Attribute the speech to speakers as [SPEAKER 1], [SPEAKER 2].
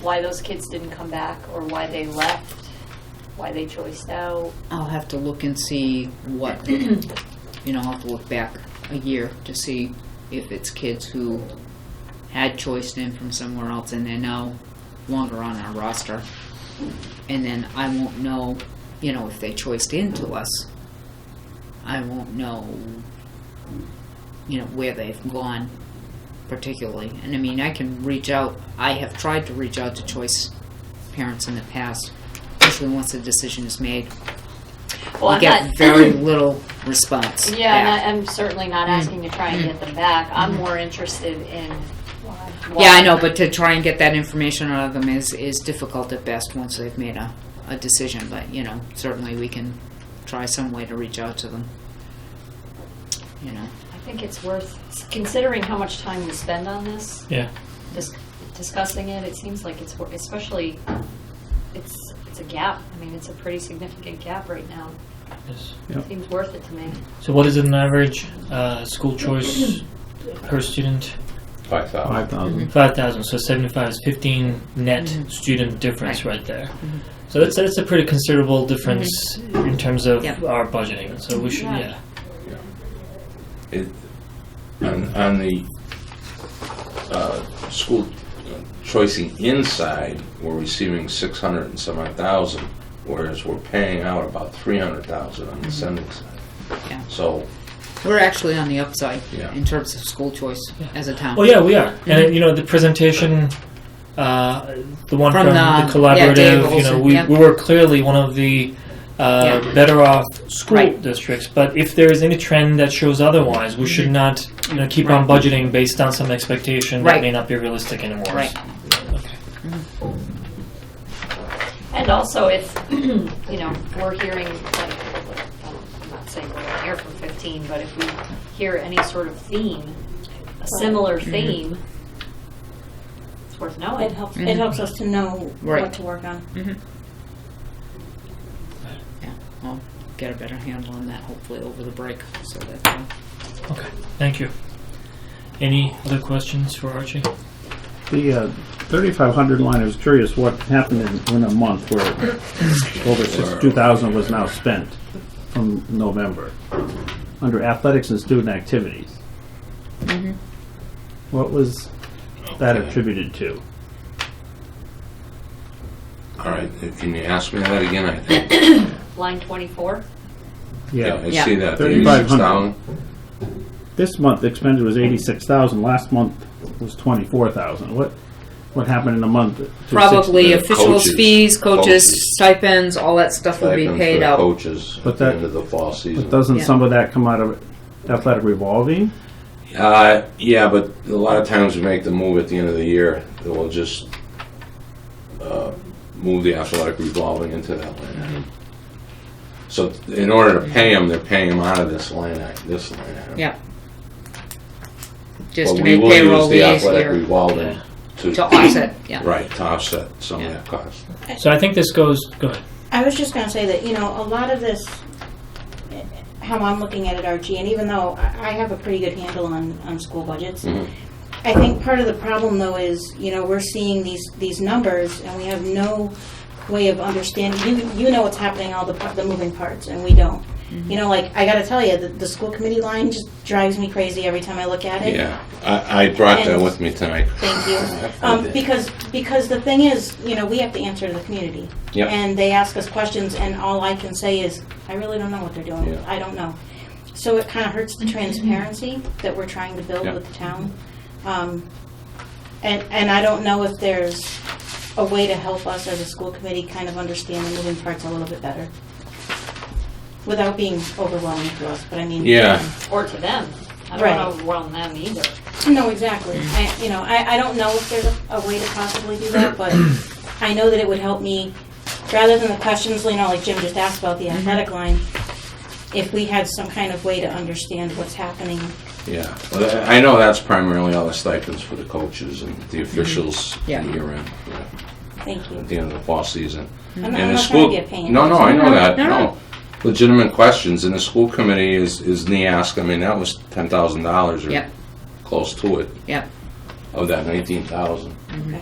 [SPEAKER 1] why those kids didn't come back or why they left, why they choiced out.
[SPEAKER 2] I'll have to look and see what, you know, I'll have to look back a year to see if it's kids who had choiced in from somewhere else and they're now longer on our roster. And then I won't know, you know, if they choiced into us. I won't know, you know, where they've gone particularly. And I mean, I can reach out, I have tried to reach out to choice parents in the past, especially once a decision is made.
[SPEAKER 1] Well,
[SPEAKER 2] We
[SPEAKER 1] I'm
[SPEAKER 2] get
[SPEAKER 1] not-
[SPEAKER 2] very little response.
[SPEAKER 1] Yeah, and
[SPEAKER 2] back.
[SPEAKER 1] I- I'm certainly not asking to try and get them back. I'm more interested in. why-
[SPEAKER 2] Mm-hmm. Yeah, I know, but to try and get that information out of them is, is difficult at best once they've made a, a decision, but, you know, certainly we can try some way to reach out to them. You know,
[SPEAKER 1] I think it's worth, considering how much time we spend on this,
[SPEAKER 3] Yeah.
[SPEAKER 1] dis- discussing it, it seems like it's, wor- especially, it's, it's a gap. I mean, it's a pretty significant gap right now.
[SPEAKER 3] yes.
[SPEAKER 4] Yep.
[SPEAKER 1] Seems worth it to me.
[SPEAKER 3] So what is an average uh, school choice per student?
[SPEAKER 5] Five thousand.
[SPEAKER 4] Five
[SPEAKER 2] Mm-hmm.
[SPEAKER 4] thousand.
[SPEAKER 3] Five thousand. So seventy-five is fifteen net
[SPEAKER 2] Mhm.
[SPEAKER 3] student difference right, there. So that's that's a pretty considerable difference in terms of
[SPEAKER 2] Yep.
[SPEAKER 3] our budgeting. So we should
[SPEAKER 1] Yeah.
[SPEAKER 3] yeah.
[SPEAKER 5] It, on, on the, uh, school choicing inside, we're receiving six hundred and some odd thousand, whereas we're paying out about three hundred thousand on
[SPEAKER 4] Mm-hmm.
[SPEAKER 5] the sending
[SPEAKER 2] Yeah.
[SPEAKER 5] side. So,
[SPEAKER 2] we're actually on the upside
[SPEAKER 5] Yeah.
[SPEAKER 2] in terms of school choice as a town.
[SPEAKER 3] Oh yeah, we are. And you know the presentation, uh, the one
[SPEAKER 2] From
[SPEAKER 3] from,
[SPEAKER 2] the-
[SPEAKER 3] the collaborative.
[SPEAKER 2] yeah, Dave
[SPEAKER 3] you know,
[SPEAKER 2] Olson,
[SPEAKER 3] we,
[SPEAKER 2] yeah.
[SPEAKER 3] we were clearly one of the uh,
[SPEAKER 2] Yeah.
[SPEAKER 3] better off school
[SPEAKER 2] Right.
[SPEAKER 3] districts. But if there is any trend that shows otherwise, we
[SPEAKER 2] Mm-hmm.
[SPEAKER 3] should not you know keep on budgeting based on some expectation
[SPEAKER 2] Right.
[SPEAKER 3] that may not be realistic anymore.
[SPEAKER 2] Right.
[SPEAKER 3] Okay.
[SPEAKER 1] And also, if, you know, we're hearing, like, I'm not saying we're gonna hear from 15, but if we hear any sort of theme, a similar theme, it's worth
[SPEAKER 6] It
[SPEAKER 1] knowing.
[SPEAKER 6] helps,
[SPEAKER 2] Mhm.
[SPEAKER 6] it helps us to know
[SPEAKER 2] Right.
[SPEAKER 6] what to work on.
[SPEAKER 2] Yeah, I'll get a better handle on that hopefully over the break, so that, uh,
[SPEAKER 3] Okay. Thank you. Any other questions for Archie?
[SPEAKER 4] The uh, thirty-five hundred line, I was curious what happened in, in a month where over sixty-two thousand was now spent from November under athletics and student activities. Mm-hmm. What was that attributed to?
[SPEAKER 5] all right, can you ask me that again? I think,
[SPEAKER 1] Line 24?
[SPEAKER 5] yeah, I see that, the
[SPEAKER 4] 3,500.
[SPEAKER 5] 86,000.
[SPEAKER 4] This month expended was eighty-six thousand, last month was twenty-four thousand. What, what happened in a month? to six-
[SPEAKER 2] Probably
[SPEAKER 5] the
[SPEAKER 2] officials'
[SPEAKER 5] coaches-
[SPEAKER 2] fees, coaches,
[SPEAKER 5] coaches.
[SPEAKER 2] stipends, all that stuff will be
[SPEAKER 5] Stipends for
[SPEAKER 2] paid
[SPEAKER 5] the
[SPEAKER 2] out.
[SPEAKER 5] Coaches
[SPEAKER 4] But
[SPEAKER 5] at the
[SPEAKER 4] that-
[SPEAKER 5] end of the fall season.
[SPEAKER 4] But doesn't
[SPEAKER 2] Yeah.
[SPEAKER 4] some of that come out of athletic revolving?
[SPEAKER 5] Uh, yeah, but a lot of times we make the move at the end of the year, that we'll just, uh, move the athletic revolving into that line item. So in order to pay them, they're paying them out of this line item, this line item.
[SPEAKER 2] Yeah.
[SPEAKER 5] But
[SPEAKER 2] Just to
[SPEAKER 5] we
[SPEAKER 2] make
[SPEAKER 5] will
[SPEAKER 2] payroll
[SPEAKER 5] use the
[SPEAKER 2] easier.
[SPEAKER 5] athletic revolving to.
[SPEAKER 2] To offset, yeah.
[SPEAKER 5] Right, to offset some of
[SPEAKER 2] Yeah.
[SPEAKER 5] that cost.
[SPEAKER 3] So I think this goes. Go ahead.
[SPEAKER 6] I was just gonna say that, you know, a lot of this, eh, how I'm looking at it, Archie, and even though I I have a pretty good handle on, on school budgets,
[SPEAKER 5] Mhm.
[SPEAKER 6] I think part of the problem though is, you know, we're seeing these, these numbers and we have no way of understanding, you, you know what's happening, all the, par- the moving parts, and we don't. You know, like, I gotta tell you, the, the school committee line just drives me crazy every time I look at it.
[SPEAKER 5] Yeah, I, I brought that
[SPEAKER 6] And-
[SPEAKER 5] with me tonight.
[SPEAKER 6] Thank you. Um, because, because the thing is, you know, we have to answer to the community.
[SPEAKER 5] Yep.
[SPEAKER 6] And they ask us questions and all I can say is, I really don't know what they're doing.
[SPEAKER 5] Yeah.
[SPEAKER 6] I don't know. So it kind of hurts the transparency that we're trying to build
[SPEAKER 5] Yeah.
[SPEAKER 6] with the town. Um, and, and I don't know if there's a way to help us as a school committee kind of understand the moving parts a little bit better. Without being overwhelming to us, but I mean.
[SPEAKER 5] Yeah,
[SPEAKER 1] Or to them. I
[SPEAKER 6] Right.
[SPEAKER 1] don't know if we're on them either.
[SPEAKER 6] No, exactly. I, you know, I, I don't know if there's a, a way to possibly do that, but I know that it would help me, rather than the questions, you know, like Jim just asked about the athletic line, if we had some kind of way to understand what's happening.
[SPEAKER 5] yeah. Well, I I know that's primarily all the stipends for the coaches and the officials
[SPEAKER 2] Yeah.
[SPEAKER 5] year round. yeah.
[SPEAKER 6] Thank you.
[SPEAKER 5] at the end of the fall season.
[SPEAKER 6] I'm
[SPEAKER 5] And
[SPEAKER 6] not, I'm
[SPEAKER 5] the
[SPEAKER 6] not trying to
[SPEAKER 5] school,
[SPEAKER 6] be a pain.
[SPEAKER 5] no, no, I know that,
[SPEAKER 2] No, no.
[SPEAKER 5] no. Legitimate questions, and the school committee is, is NEASC, I mean, that was ten thousand dollars or
[SPEAKER 2] Yep,
[SPEAKER 5] close to it,
[SPEAKER 2] yep.
[SPEAKER 5] of that nineteen thousand.
[SPEAKER 6] Okay.